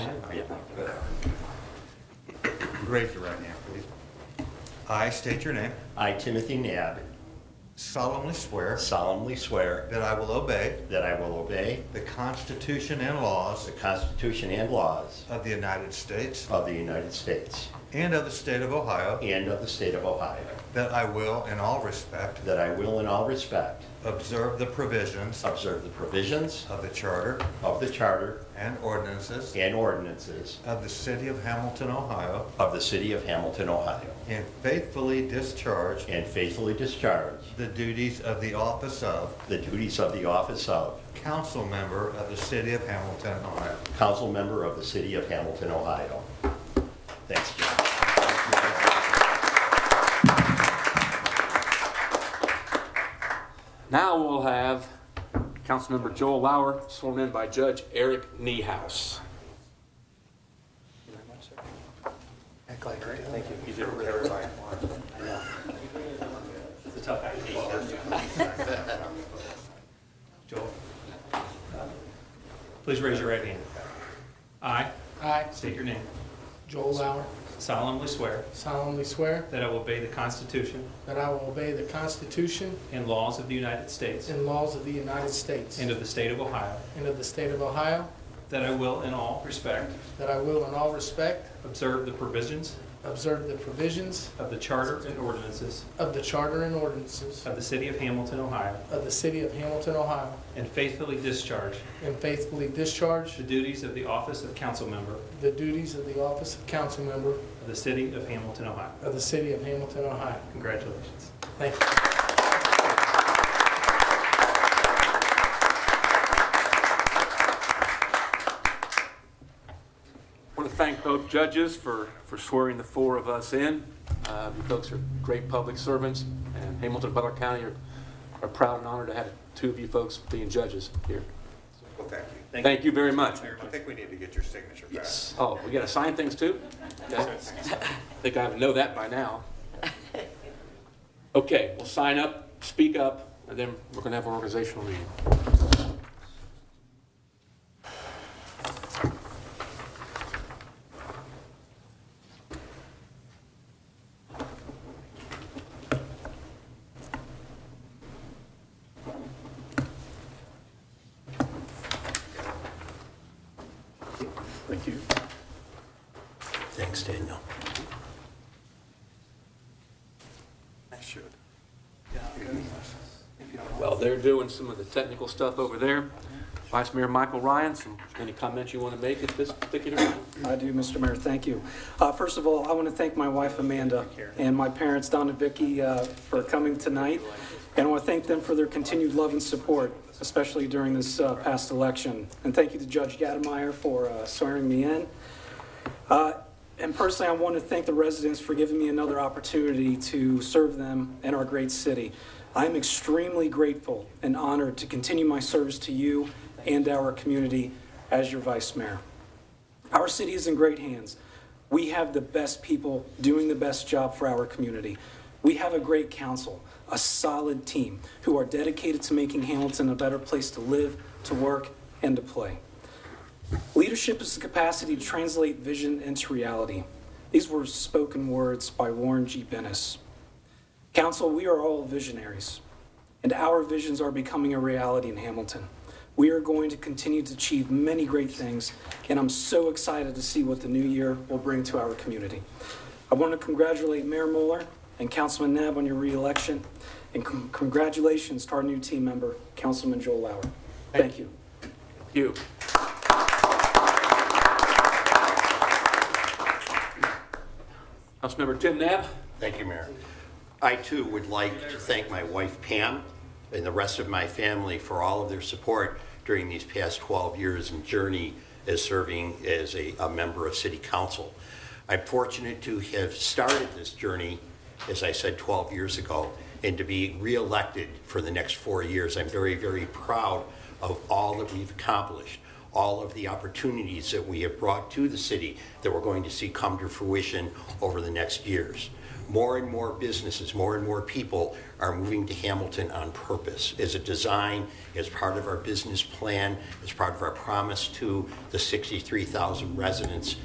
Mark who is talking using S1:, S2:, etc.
S1: raise your right hand, please. I state your name,
S2: I, Timothy Nab,
S1: solemnly swear
S2: solemnly swear
S1: that I will obey
S2: that I will obey
S1: the Constitution and laws
S2: the Constitution and laws
S1: of the United States
S2: of the United States
S1: and of the state of Ohio,
S2: and of the state of Ohio,
S1: that I will, in all respect,
S2: that I will in all respect
S1: observe the provisions
S2: observe the provisions
S1: of the charter
S2: of the charter
S1: and ordinances
S2: and ordinances
S1: of the city of Hamilton, Ohio,
S2: of the city of Hamilton, Ohio,
S1: and faithfully discharge
S2: and faithfully discharge
S1: the duties of the office of
S2: the duties of the office of
S1: council member of the city of Hamilton, Ohio.
S2: council member of the city of Hamilton, Ohio. Thanks, John.
S3: Now we'll have Councilmember Joel Lauer sworn in by Judge Eric Niehaus.
S4: Joel. Please raise your right hand. I
S5: I,
S4: state your name.
S5: Joel Lauer,
S4: solemnly swear
S5: solemnly swear
S4: that I will obey the Constitution
S5: that I will obey the Constitution
S4: and laws of the United States
S5: and laws of the United States
S4: and of the state of Ohio,
S5: and of the state of Ohio,
S4: that I will in all respect
S5: that I will in all respect
S4: observe the provisions
S5: observe the provisions
S4: of the charter and ordinances
S5: of the charter and ordinances
S4: of the city of Hamilton, Ohio,
S5: of the city of Hamilton, Ohio,
S4: and faithfully discharge
S5: and faithfully discharge
S4: the duties of the office of council member
S5: the duties of the office of council member
S4: of the city of Hamilton, Ohio.
S5: of the city of Hamilton, Ohio.
S4: Congratulations.
S5: Thank you.
S3: I want to thank both judges for, for swearing the four of us in. Uh, You folks are great public servants, and Hamilton and Butler County are are proud and honored to have two of you folks being judges here.
S1: Well, thank you.
S3: Thank you very much.
S1: I think we need to get your signature back.
S3: Oh, we gotta sign things too? Okay. Think I would know that by now. Okay, we'll sign up, speak up, and then we're gonna have an organizational meeting. Thank you.
S2: Thanks, Daniel.
S1: I should.
S3: Well, they're doing some of the technical stuff over there. Vice Mayor Michael Ryan, some, any comments you want to make at this particular time?
S6: I do, Mr. Mayor, thank you. Uh, First of all, I want to thank my wife Amanda and my parents, Don and Vicky, uh, for coming tonight. And I want to thank them for their continued love and support, especially during this uh, past election. And thank you to Judge Gademeier for uh, swearing me in. Uh, And personally, I want to thank the residents for giving me another opportunity to serve them and our great city. I am extremely grateful and honored to continue my service to you and our community as your vice mayor. Our city is in great hands. We have the best people doing the best job for our community. We have a great council, a solid team who are dedicated to making Hamilton a better place to live, to work, and to play. Leadership is the capacity to translate vision into reality. These were spoken words by Warren G. Bennis. Council, we are all visionaries, and our visions are becoming a reality in Hamilton. We are going to continue to achieve many great things, and I'm so excited to see what the new year will bring to our community. I want to congratulate Mayor Mueller and Councilman Nab on your reelection, and con- congratulations to our new team member, Councilman Joel Lauer. Thank you.
S3: You. Councilmember Tim Nab?
S2: Thank you, Mayor. I too would like to thank my wife Pam and the rest of my family for all of their support during these past 12 years and journey as serving as a, a member of City Council. I'm fortunate to have started this journey, as I said, 12 years ago, and to be reelected for the next four years. I'm very, very proud of all that we've accomplished, all of the opportunities that we have brought to the city that we're going to see come to fruition over the next years. More and more businesses, more and more people are moving to Hamilton on purpose as a design, as part of our business plan, as part of our promise to the 63,000 residents